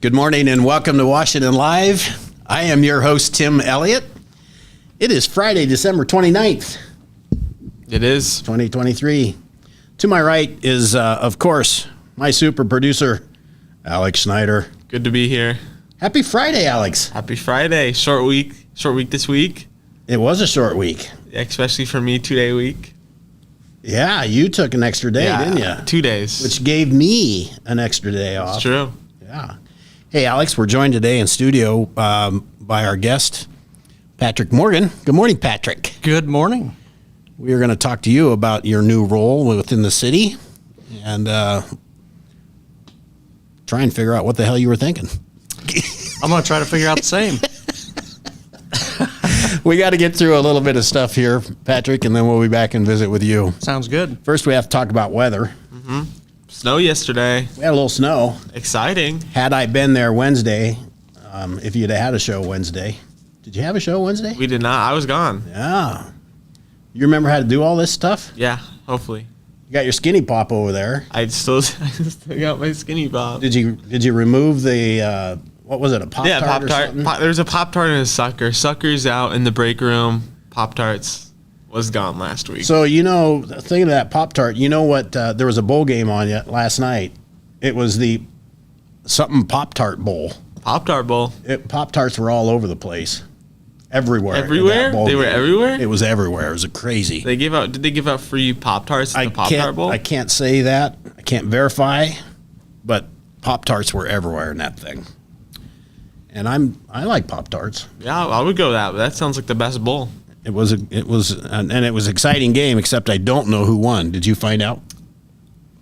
Good morning and welcome to Washington Live. I am your host, Tim Elliott. It is Friday, December 29th, It is. 2023. To my right is, uh, of course, my super producer, Alex Snyder. Good to be here. Happy Friday, Alex. Happy Friday. Short week. Short week this week, It was a short week. especially for me, two day week. Uh, Yeah, you took an extra day, didn't you? Two days. Which gave me an extra day off. it's true. Yeah. Hey, Alex, we're joined today in studio um, by our guest, Patrick Morgan. Good morning, Patrick. Good morning. We are going to talk to you about your new role within the city and uh, try and figure out what the hell you were thinking. I'm going to try to figure out the same. We got to get through a little bit of stuff here, Patrick, and then we'll be back and visit with you. Sounds good. First, we have to talk about weather. Snow yesterday. We had a little snow. Exciting. Had I been there Wednesday, um, if you'd have had a show Wednesday, did you have a show Wednesday? We did not. I was gone. Yeah. You remember how to do all this stuff? Yeah. Hopefully, You got your skinny pop over there. I still, I still got my skinny bob. Did you did you remove the uh, what was it a pop yeah, tart pop or tart. something? There was a pop tart and a sucker. Suckers out in the break room. Pop tarts was gone last week. So you know, thinking of that Pop Tart, you know what? Uh, there was a bowl game on yet last night. It was the something Pop Tart Bowl. pop tart bowl. Pop Tarts were all over the place, everywhere. in that Everywhere? bowl They were game. everywhere? It was everywhere. It was a crazy. They gave out. Did they give out free pop tarts at I the pop can't. tart bowl? I can't say that. I can't verify, but Pop Tarts were everywhere in that thing. And I'm I like Pop Tarts. Yeah, I would go that. That sounds like the best bowl. It was a, it was an, and it was an exciting game. Except I don't know who won. Did you find out?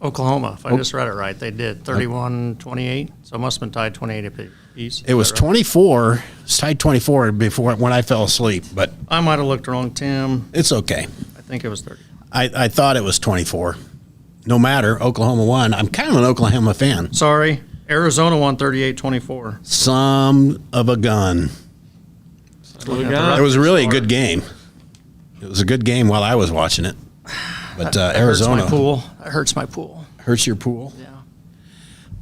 Oklahoma, if I just read it right, they did 31 28. So it must have been tied 28 apiece. It was 24, it's tied 24 before when I fell asleep, but I might have looked wrong, Tim. it's okay. I think it was 30. I, I thought it was 24. No matter, Oklahoma won. I'm kind of an Oklahoma fan. Sorry. Arizona won 38 24. Some of a gun. What we Yeah, got? It was really a good game. It was a good game while I was watching it. But uh, Arizona Hurts my pool. That hurts my pool. hurts your pool.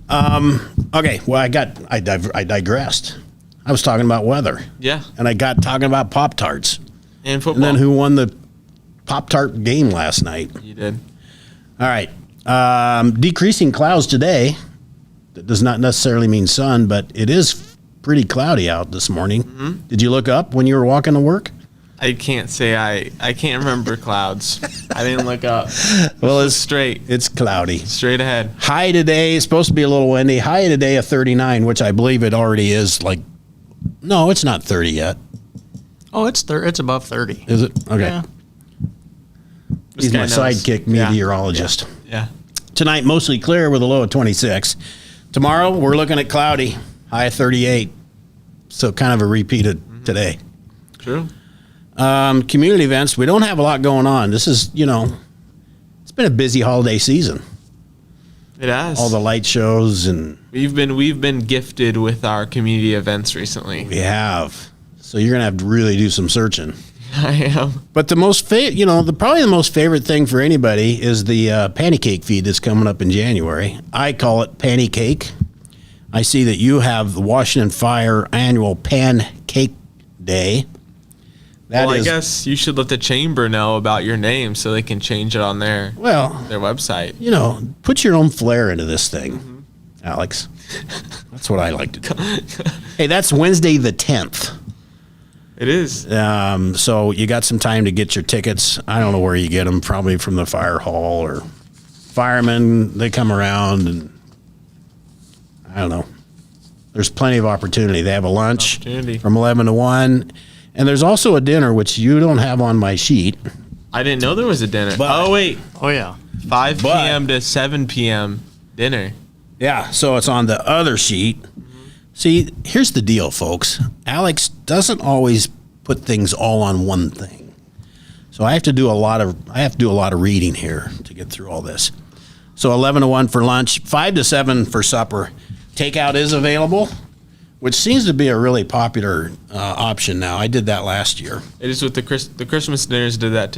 Yeah. Okay, well, I got, I, div- I digressed. I was talking about weather Yeah, and I got talking about Pop Tarts. and football. And then who won the Pop Tart game last night? You did. All right. Um, decreasing clouds today. That does not necessarily mean sun, but it is pretty cloudy out this morning. Mm-hmm. Did you look up when you were walking to work? I can't say I. I can't remember clouds. I didn't look up. Well, It's straight, it's cloudy. straight ahead. High today is supposed to be a little windy. High today of 39, which I believe it already is like No, it's not 30 yet. Oh, it's thir- it's above 30. Is it? Okay. Yeah. This He's my guy knows. sidekick Yeah, meteorologist. Yeah. Tonight mostly clear with a low of 26. Tomorrow we're looking at cloudy, high of 38. So kind of a repeat of Mm-hmm. today. True. um, community events. We don't have a lot going on. This is, you know, it's been a busy holiday season. It has. All the light shows, and we've been we've been gifted with our community events recently. we have. So you're gonna have to really do some searching. I am. But the most, fa- you know, the probably the most favorite thing for anybody is the uh, panty cake feed that's coming up in January. I call it panty cake. I see that you have the Washington Fire annual Pan Cake Day. That Well, I is- guess you should let the chamber know about your name so they can change it on their well, their website. you know, put your own flair into this thing, Alex. That's what I like to do. hey, that's Wednesday the 10th. It is. Um, so you got some time to get your tickets. I don't know where you get them, probably from the fire hall or firemen. They come around and I don't know. There's plenty of opportunity. They have a lunch Opportunity. from 11 to 1. And there's also a dinner, which you don't have on my sheet. I didn't know there was a dinner. But- oh wait, Oh, yeah. 5 But- p.m. to 7 p.m. dinner. Yeah, so it's on the other sheet. See, here's the deal, folks. Alex doesn't always put things all on one thing. So I have to do a lot of I have to do a lot of reading here to get through all this. So 11 to 1 for lunch, 5 to 7 for supper. Takeout is available, which seems to be a really popular uh, option now. I did that last year. It is with the Chris, the Christmas dinners did that